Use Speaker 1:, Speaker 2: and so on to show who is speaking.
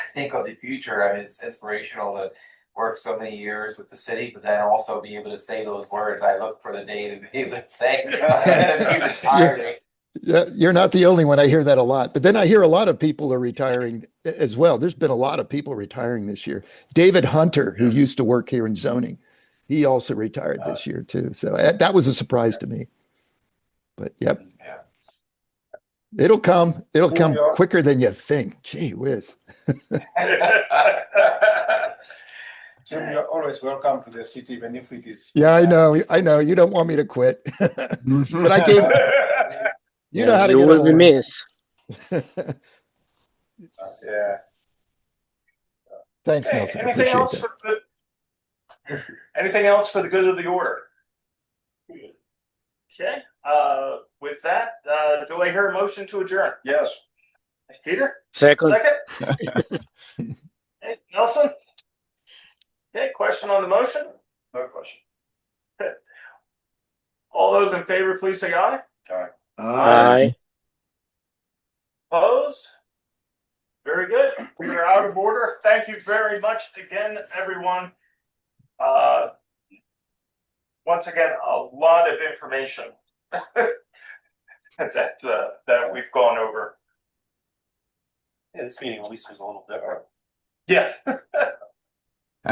Speaker 1: think of the future, I mean, it's inspirational to work so many years with the city, but then also be able to say those words. I look for the day to be able to say. "I'm retiring."
Speaker 2: Yeah, you're not the only one. I hear that a lot. But then I hear a lot of people are retiring a- as well. There's been a lot of people retiring this year. David Hunter, who used to work here in zoning, he also retired this year too. So eh, that was a surprise to me. But yep,
Speaker 1: Yeah.
Speaker 2: it'll come. It'll
Speaker 3: Here
Speaker 2: come
Speaker 3: we are.
Speaker 2: quicker than you think. Gee whiz.
Speaker 3: Jim, you're always welcome to the city, even if it is.
Speaker 2: Yeah, I know. I know. You don't want me to quit. but I gave you know
Speaker 4: Yeah,
Speaker 2: how to
Speaker 4: you
Speaker 2: get
Speaker 4: will be
Speaker 2: along.
Speaker 4: missed.
Speaker 3: Yeah.
Speaker 2: Thanks,
Speaker 5: Okay,
Speaker 2: Nelson.
Speaker 5: Anything
Speaker 2: Appreciate
Speaker 5: else
Speaker 2: that.
Speaker 5: for the? Anything else for the good of the order? Okay, uh, with that, uh, do I hear a motion to adjourn?
Speaker 3: Yes.
Speaker 5: Peter,
Speaker 4: Second,
Speaker 5: second? Hey, Nelson? Okay, question on the motion?
Speaker 3: No question.
Speaker 5: All those in favor, please say aye.
Speaker 4: aye.
Speaker 5: Opposed? Very good. We are out of order. Thank you very much again, everyone. Uh, once again, a lot of information that, uh, that we've gone over.
Speaker 1: Yeah, this meeting at least was a little different.
Speaker 5: Yeah,